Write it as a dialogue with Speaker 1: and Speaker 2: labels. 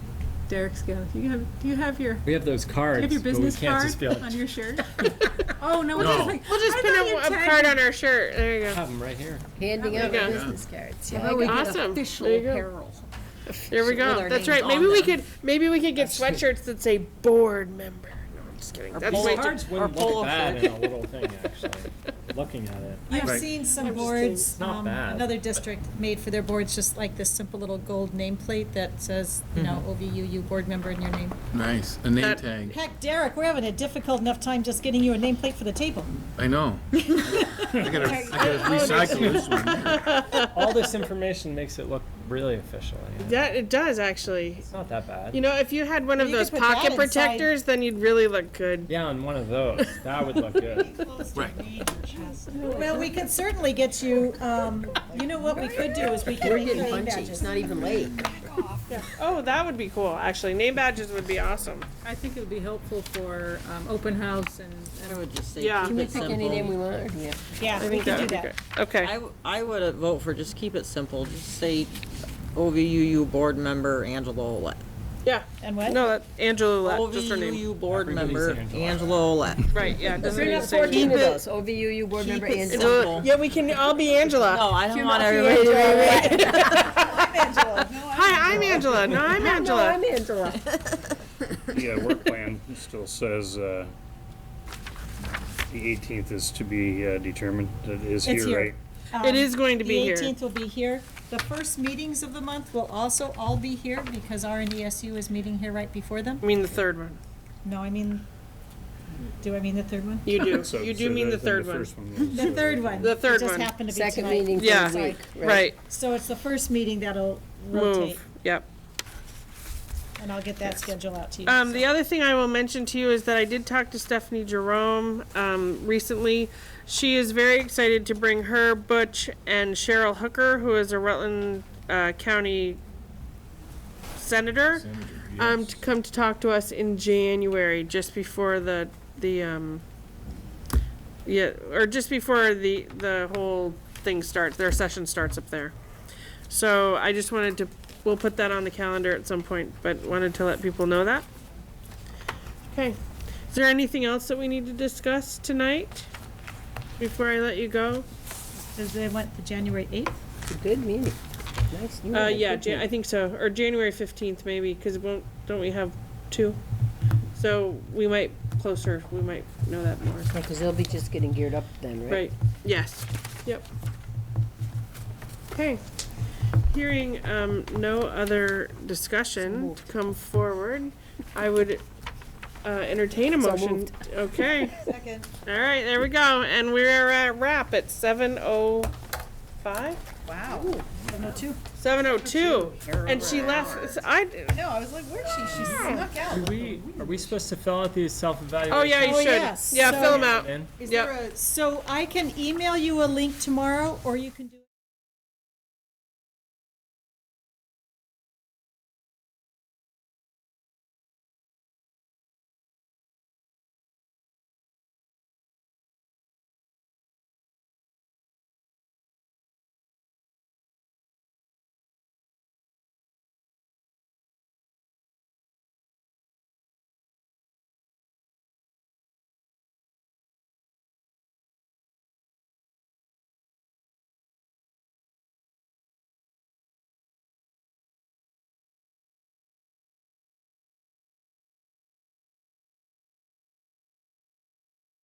Speaker 1: Derek's go. Do you have, do you have your, do
Speaker 2: We have those
Speaker 1: you
Speaker 2: cards.
Speaker 1: have your
Speaker 2: but we
Speaker 1: business
Speaker 2: can't just
Speaker 1: card
Speaker 2: be like,
Speaker 1: on your shirt? Oh, no, we'll
Speaker 3: No.
Speaker 1: just like.
Speaker 4: We'll just
Speaker 1: I
Speaker 4: pin
Speaker 1: thought you
Speaker 4: a, a
Speaker 1: tagged
Speaker 4: card
Speaker 1: me.
Speaker 4: on our shirt. There you go.
Speaker 2: Have 'em right here.
Speaker 5: Handing
Speaker 4: There
Speaker 5: out
Speaker 4: we
Speaker 5: the
Speaker 4: go.
Speaker 5: business cards. Yeah,
Speaker 1: How about we
Speaker 5: I got
Speaker 1: get
Speaker 4: Awesome.
Speaker 1: Official
Speaker 4: There you go.
Speaker 1: apparel.
Speaker 4: There we
Speaker 5: with
Speaker 4: go.
Speaker 5: our
Speaker 4: That's
Speaker 5: names
Speaker 4: right. Maybe
Speaker 5: on
Speaker 4: we
Speaker 5: them.
Speaker 4: could maybe we could get sweatshirts that say board member. No, I'm just kidding. That's my
Speaker 2: Cards wouldn't look bad in a little thing, actually, looking at it.
Speaker 6: I've
Speaker 3: Right.
Speaker 6: seen some boards,
Speaker 2: Not
Speaker 6: um,
Speaker 2: bad.
Speaker 6: another district made for their boards, just like this simple little gold nameplate that says, you
Speaker 2: Mm-hmm.
Speaker 6: know, OVUU board member and your name.
Speaker 3: Nice, a name
Speaker 4: That-
Speaker 3: tag.
Speaker 6: Heck, Derek, we're having a difficult enough time just getting you a nameplate for the table.
Speaker 3: I know. I gotta, I gotta recycle this one.
Speaker 2: All this information makes it look really official. you know?
Speaker 4: that it does actually.
Speaker 2: It's not that bad.
Speaker 4: You know, if you had one of
Speaker 6: You could
Speaker 4: those
Speaker 6: put that
Speaker 4: pocket
Speaker 6: inside.
Speaker 4: protectors, then you'd really look good.
Speaker 2: Yeah, on one of those, that would look good.
Speaker 3: Right.
Speaker 6: Well, we could certainly get you, um, you know what we could do is we could
Speaker 5: We're
Speaker 6: make you
Speaker 5: getting
Speaker 6: name
Speaker 5: punchy. It's
Speaker 6: badges.
Speaker 5: not even late.
Speaker 4: Oh, that would be cool. Actually, name badges would be awesome.
Speaker 1: I think it would be helpful for um, open house and,
Speaker 5: I would just say.
Speaker 4: Yeah.
Speaker 5: keep
Speaker 4: Can
Speaker 5: it simple.
Speaker 7: want, or do we have-
Speaker 6: Yeah, we could do that.
Speaker 4: Okay.
Speaker 7: I, w- I would uh, vote for just keep it simple, just say OVUU board member Angela Olet.
Speaker 4: Yeah.
Speaker 6: And what?
Speaker 4: No, that Angela Lett, just her name.
Speaker 7: OVUU board member
Speaker 2: Everybody's
Speaker 7: Angela Olet.
Speaker 4: Right. Yeah. it Doesn't
Speaker 5: Bring
Speaker 4: need
Speaker 5: up
Speaker 4: to say.
Speaker 5: fourteen of those, OVUU board member
Speaker 7: Keep it
Speaker 5: and.
Speaker 7: simple.
Speaker 4: Angela- Yeah, we can all be Angela.
Speaker 7: No, I don't want everybody to be.
Speaker 4: Hi, I'm Angela. No, I'm Angela.
Speaker 5: Angela.
Speaker 8: The uh, work plan still says uh, the 18th is to be uh, determined. That is
Speaker 6: It's here.
Speaker 8: here, right?
Speaker 4: It is going to be
Speaker 6: Um, The
Speaker 4: here.
Speaker 6: 18th will be here. The first meetings of the month will also all be here because RNDSU is meeting here right before them.
Speaker 4: I mean the third one.
Speaker 6: No, I mean, do I mean the third one?
Speaker 4: You do.
Speaker 8: So-
Speaker 4: You
Speaker 8: so
Speaker 4: do mean
Speaker 8: that-
Speaker 4: the
Speaker 8: then
Speaker 4: third one.
Speaker 8: first one.
Speaker 6: The third one.
Speaker 4: The third
Speaker 6: It just
Speaker 4: one.
Speaker 6: happened to be
Speaker 5: Second
Speaker 6: tonight.
Speaker 5: meeting
Speaker 4: Yeah.
Speaker 5: for the week.
Speaker 4: Right.
Speaker 6: So it's the first meeting that'll rotate,
Speaker 4: Move. Yep.
Speaker 6: and I'll get that schedule out to you.
Speaker 4: Um, the other thing I will mention to you is that I did talk to Stephanie Jerome um, recently. She is very excited to bring her Butch and Cheryl Hooker, who is a Rutland uh, County senator, um, to come to talk to us in January, just before the the um, yeah, or just before the the whole thing starts. Their session starts up there. So I just wanted to, we'll put that on the calendar at some point, but wanted to let people know that. Okay, is there anything else that we need to discuss tonight before I let you go?
Speaker 6: Does they want the January 8th?
Speaker 5: It's a good meeting. Nice. You
Speaker 4: Uh,
Speaker 5: had a
Speaker 4: yeah,
Speaker 5: good
Speaker 4: Jan- I think so, or January fifteenth maybe, cause it won't, don't we have two? So we might closer, we might know that more,
Speaker 5: meeting. Because they'll be just getting geared up then, right?
Speaker 4: right, yes, yep. Okay, hearing, um, no other discussion to come forward, I would, uh, entertain a motion. Okay.
Speaker 6: Second.
Speaker 4: All right, there we go, and we're at wrap at seven oh five?
Speaker 6: Wow.
Speaker 4: Seven oh two, and she left, so I,
Speaker 6: No, I was like, where's she? She snuck out.
Speaker 2: Are we, are we supposed to fill out these self-evaluations?
Speaker 4: oh yeah, you
Speaker 6: Oh,
Speaker 4: should,
Speaker 6: yes.
Speaker 4: yeah,
Speaker 6: So-
Speaker 4: fill them out,
Speaker 2: Then?
Speaker 6: Is
Speaker 4: Yep.
Speaker 6: there a, so I can email you a link tomorrow, or you can do.